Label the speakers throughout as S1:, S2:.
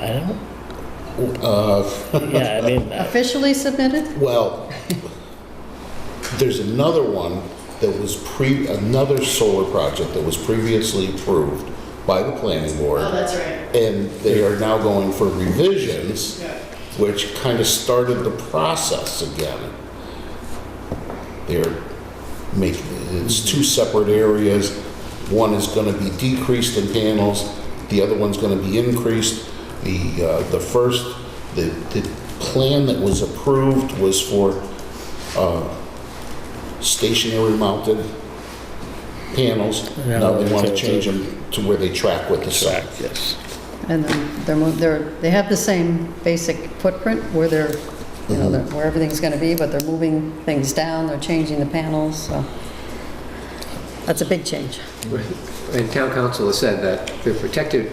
S1: I don't,
S2: Uh,
S1: yeah, I mean, I-
S3: Officially submitted?
S2: Well, there's another one that was pre, another solar project that was previously approved by the planning board.
S4: Oh, that's right.
S2: And they are now going for revisions,
S4: Yeah.
S2: which kind of started the process again. They're making, it's two separate areas. One is going to be decreased in panels, the other one's going to be increased. The, uh, the first, the, the plan that was approved was for uh, stationary mounted panels.
S1: Yeah,
S2: Now they want to
S1: it's-
S2: change them to where they track with the sun.
S1: track, yes.
S3: And then they're, mo- they're, they have the same basic footprint where they're, you know, they're-
S2: Mm-hmm.
S3: where everything's going to be, but they're moving things down, they're changing the panels, so. That's a big change.
S5: And town council has said that they're protected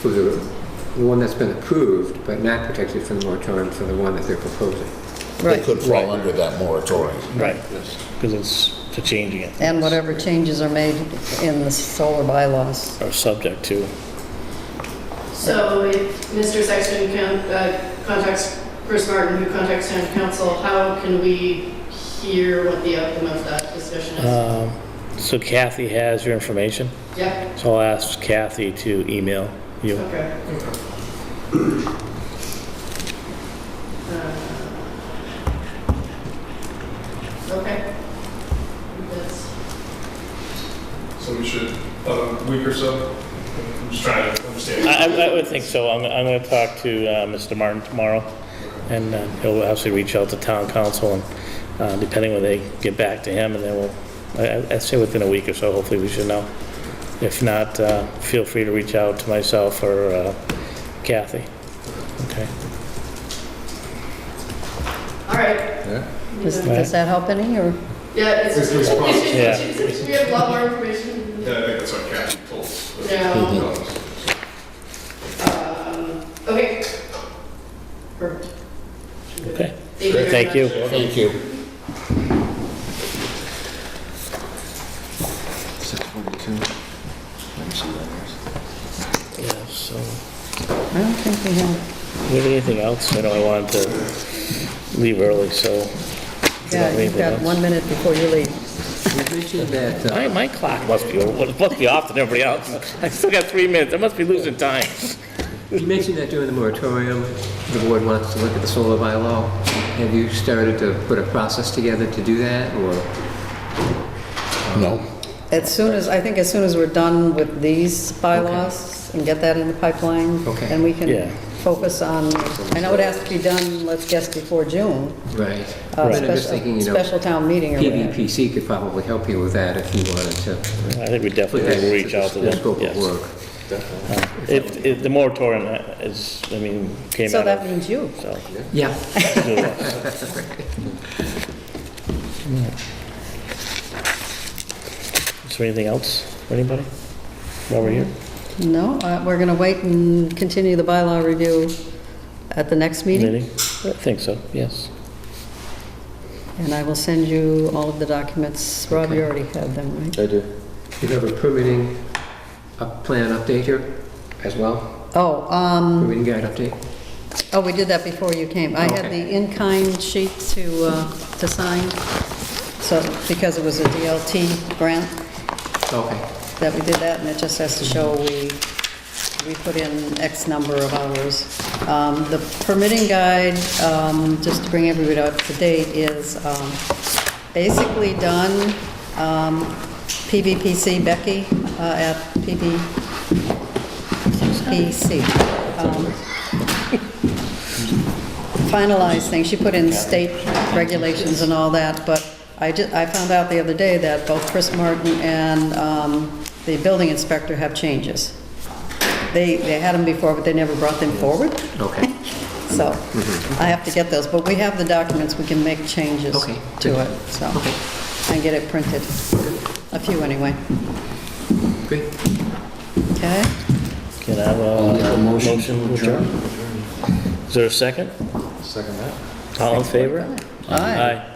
S5: for the, the one that's been approved, but not protected from the moratorium for the one that they're proposing.
S2: They
S3: Right.
S2: could
S1: Right.
S2: fall under that moratorium.
S1: Right, because it's, they're changing it.
S3: And whatever changes are made in the solar bylaws.
S1: Are subject to,
S4: So if Mr. Sexton can, uh, contacts Chris Martin, who contacts town council, how can we hear what the outcome of that discussion is?
S1: um, so Kathy has your information,
S4: Yeah,
S1: so I'll ask Kathy to email you.
S4: okay. Uh, Okay. That's-
S6: So we should, about a week or so? I'm just trying to understand.
S1: I, I- I would think so. I'm, I'm gonna talk to, uh, Mr. Martin tomorrow, and, uh, he'll actually reach out to town council, and, uh, depending when they get back to him, and then we'll, I, I- I'd say within a week or so, hopefully we should know. If not, uh, feel free to reach out to myself or, uh, Kathy. Okay.
S4: All right.
S3: Does, does that help any, or?
S4: Yeah, it's,
S6: It's the response.
S4: we have a lot more information
S6: Yeah, I think that's what Kathy told us.
S4: now.
S6: Um,
S4: Um, Okay. Perfect.
S1: Okay.
S4: Thank you. very
S1: Thank you.
S2: Thank
S4: much.
S2: you.
S7: Six forty-two. Let me see that.
S1: Yeah, so,
S3: I don't think we have.
S1: we have anything else? I know I wanted to leave early, so. if you don't
S3: Yeah,
S1: have
S3: you've
S1: anything
S3: got
S1: else-
S3: one minute before you leave.
S5: You mentioned that, uh,
S1: My, my clock must be, must be off than everybody else. I still got three minutes. I must be losing time.
S5: you mentioned that during the moratorium, the board wants to look at the solar bylaw. Have you started to put a process together to do that, or?
S2: No?
S3: As soon as, I think as soon as we're done with these bylaws and get that in the pipeline,
S5: Okay.
S3: then we
S1: Yeah.
S3: can focus on, I know it has to be done, let's guess, before June,
S5: Right.
S3: uh,
S5: But I'm just
S3: special,
S5: thinking, you know,
S3: special town meeting or whatever.
S5: PVPC could probably help you with that if you wanted to.
S1: I think we
S5: put
S1: definitely
S5: that
S1: will reach
S5: into
S1: out to
S5: the
S1: them,
S5: Scope of
S1: yes.
S5: work.
S1: If, if the moratorium is, I mean, came
S3: So
S1: out
S3: that
S1: of,
S3: means you.
S1: so.
S5: Yeah.
S1: Is there anything else for anybody while we're here?
S3: No, uh, we're going to wait and continue the bylaw review at the next meeting,
S1: Meeting? I think so, yes.
S3: and I will send you all of the documents. Rob, you already have them, right?
S7: I do.
S5: You have a permitting, a plan update here as well?
S3: Oh, um,
S5: Permitting guide update?
S3: Oh, we did that before you came. I had
S5: Okay.
S3: the in-kind sheet to, uh, to sign, so, because it was a DLT grant
S5: Okay.
S3: that we did that, and it just has to show we, we put in X number of hours. Um, The permitting guide, um, just to bring everybody up to date, is um, basically done. Um, PVPC Becky uh, at PVPC. um, finalized thing. She put in state regulations and all that, but I ju- I found out the other day that both Chris Martin and um, the building inspector have changes. They, they had them before, but they never brought them forward.
S5: Okay. Mm-hmm.
S3: So I have to get those, but we have the documents, we can make changes
S5: Okay,
S3: to
S5: good.
S3: it, so.
S5: Okay.
S3: And get it printed, a few anyway,
S5: Great.
S3: okay?
S1: Can I have a motion adjourned? Is there a second?
S7: Second that.
S1: All in favor?
S3: All right.
S1: Aye.